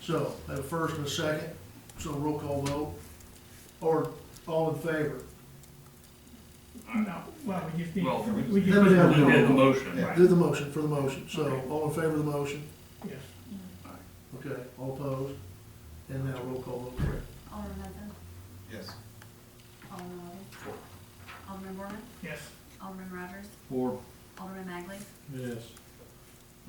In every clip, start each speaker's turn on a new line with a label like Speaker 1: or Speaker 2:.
Speaker 1: So, I have a first and a second, so roll call vote, or all in favor.
Speaker 2: No, well, we just need,
Speaker 3: Well,
Speaker 2: we
Speaker 3: we-
Speaker 2: just.
Speaker 1: Then we have-
Speaker 3: We did the motion,
Speaker 1: Yeah,
Speaker 3: right?
Speaker 1: do the motion for the motion, so
Speaker 2: Okay.
Speaker 1: all in favor of the motion,
Speaker 2: Yes,
Speaker 1: okay, all opposed, and now roll call vote, Rick.
Speaker 4: Alderman Hudson,
Speaker 5: Yes.
Speaker 4: Alderman Walden. Alderman Borman,
Speaker 2: yes,
Speaker 4: Alderman Rogers,
Speaker 3: Four.
Speaker 4: Alderman Magley.
Speaker 3: Yes.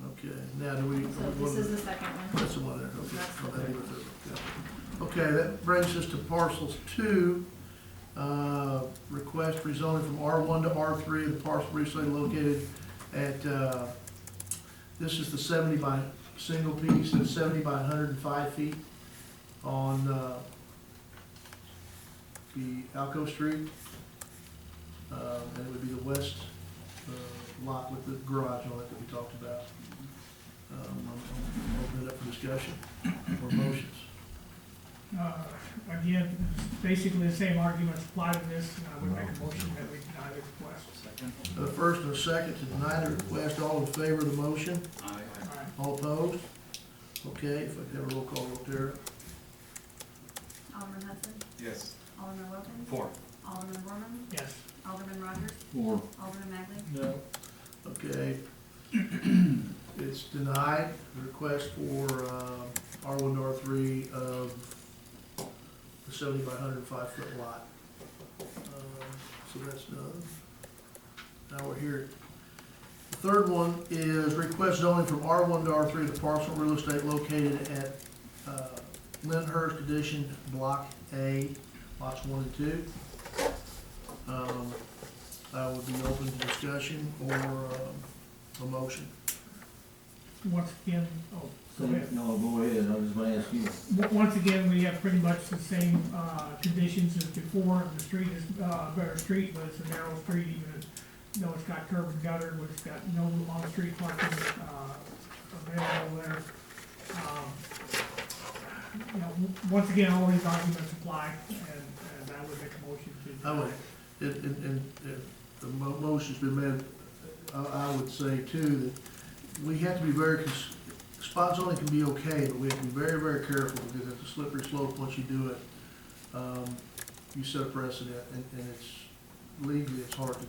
Speaker 1: okay, now do we?
Speaker 6: So this is the second one.
Speaker 1: That's the one there, okay.
Speaker 6: That's the
Speaker 1: I'll have you with it, yeah. Okay, that brings us to parcels two, uh, request rezoning from R one to R three, the parcel recently located at, uh, this is the seventy by, single piece, and seventy by hundred and five feet on, uh, the Alco Street. Uh, and it would be the west, uh, lot with the garage on it that we talked about. Um, I'm- I'm Open it up for discussion or motions.
Speaker 2: uh, again, basically the same arguments apply to this, and I would make a motion that we deny the request.
Speaker 3: Second.
Speaker 1: The first and a second to deny the request, all in favor of the motion,
Speaker 3: Aye.
Speaker 2: All right,
Speaker 1: all opposed? Okay, if I could have a roll call vote there.
Speaker 4: Alderman Hudson,
Speaker 5: Yes.
Speaker 4: Alderman Wilkins,
Speaker 3: Four.
Speaker 4: Alderman Borman,
Speaker 2: yes,
Speaker 4: Alderman Rogers,
Speaker 3: Four.
Speaker 4: Alderman Magley.
Speaker 3: No.
Speaker 1: Okay. It's denied, the request for uh, R one to R three of the seventy by hundred and five foot lot. Um, So that's done. Now we're here. The third one is request zoning from R one to R three, the parcel real estate located at uh, Lyndhurst Edition Block A, lots one and two. Um, I would be open to discussion or um, a motion.
Speaker 2: once again, oh, go ahead.
Speaker 7: No, go ahead, I was gonna ask you.
Speaker 2: W- Once again, we have pretty much the same, uh, conditions as before, the street is, uh, a better street, but it's a narrow street, even though it's got curb and gutter, but it's got no on-street parking, uh, available there. Um, You know, w- once again, all these arguments apply, and, and I would make a motion to.
Speaker 1: I would. And, and, and and the mo- motion's been made, I, I would say too, that we have to be very, cons- spot zoning can be okay, but we have to be very, very careful because it's a slippery slope once you do it. Um, You set a precedent and, and it's legally, it's hard to,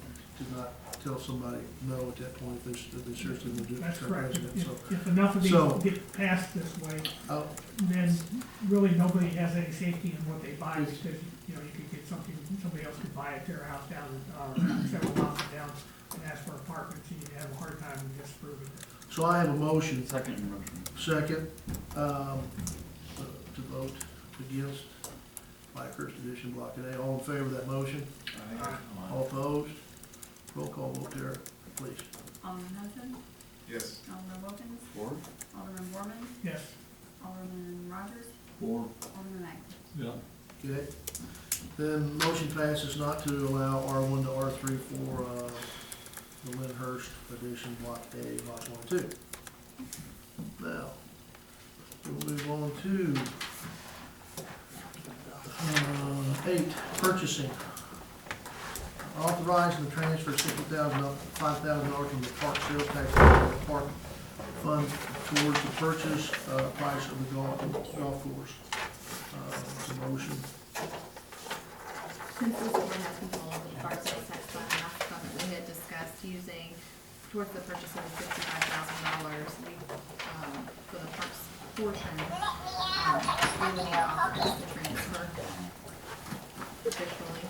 Speaker 1: to not tell somebody no at that point if they, s- if they seriously would do it.
Speaker 2: That's
Speaker 1: set a
Speaker 2: correct.
Speaker 1: precedent.
Speaker 2: If,
Speaker 1: So,
Speaker 2: if enough of
Speaker 1: So-
Speaker 2: these get passed this way,
Speaker 1: I'll-
Speaker 2: then really nobody has any safety in what they buy, because, you know, you could get something, somebody else could buy it, tear a house down, uh, several houses down, and ask for apartments, and you have a hard time disproving it.
Speaker 1: so I have a motion
Speaker 3: Second motion.
Speaker 1: Second, um, to vote against Blackhurst Edition Block A. All in favor of that motion?
Speaker 5: Aye.
Speaker 1: All opposed? Roll call vote there, please.
Speaker 4: Alderman Hudson,
Speaker 5: Yes.
Speaker 4: Alderman Wilkins,
Speaker 3: Four.
Speaker 4: Alderman Borman,
Speaker 2: Yes,
Speaker 4: Alderman Rogers,
Speaker 7: Four,
Speaker 4: Alderman Magley.
Speaker 3: Yeah.
Speaker 1: Okay? Then motion passes not to allow R one to R three for, uh, the Lyndhurst Edition Block A, lots one and two. Now, we'll move on to, uh, eight, purchasing. Authorizing the transfer of sixty thousand, five thousand dollars from the park sales tax to the park fund towards the purchase, uh, price of the golf, golf course. Uh, motion.
Speaker 6: Since this is the one that's involved in parcel tax fund, last fund that we had discussed using towards the purchase of the fifty-five thousand dollars, we, um, for the parks portion, um, we would offer us to transfer officially.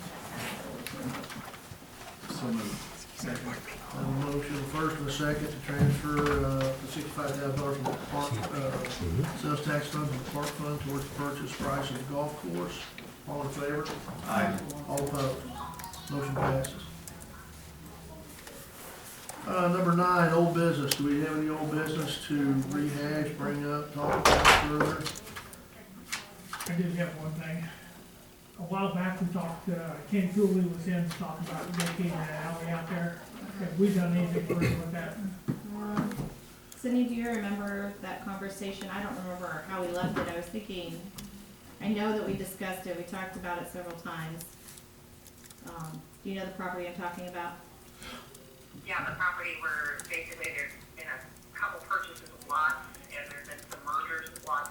Speaker 3: So moved.
Speaker 2: Second.
Speaker 1: I have a motion first and a second to transfer, uh, the sixty-five thousand dollars from the park, uh, sales tax fund to the park fund towards the purchase price of the golf course. All in favor?
Speaker 5: Aye.
Speaker 1: All opposed? Motion passes. Uh, number nine, old business. Do we have any old business to rehash, bring up, talk about further?
Speaker 2: I did have one thing. A while back, we talked, uh, Ken Cooley was in, talking about making an alley out there. Have we done anything for him with that?
Speaker 6: Um, Sydney, do you remember that conversation? I don't remember how we left it. I was thinking, I know that we discussed it. We talked about it several times. Um, do you know the property I'm talking about?
Speaker 8: Yeah, the property where basically there's been a couple purchases of lots and there's been some mergers of lots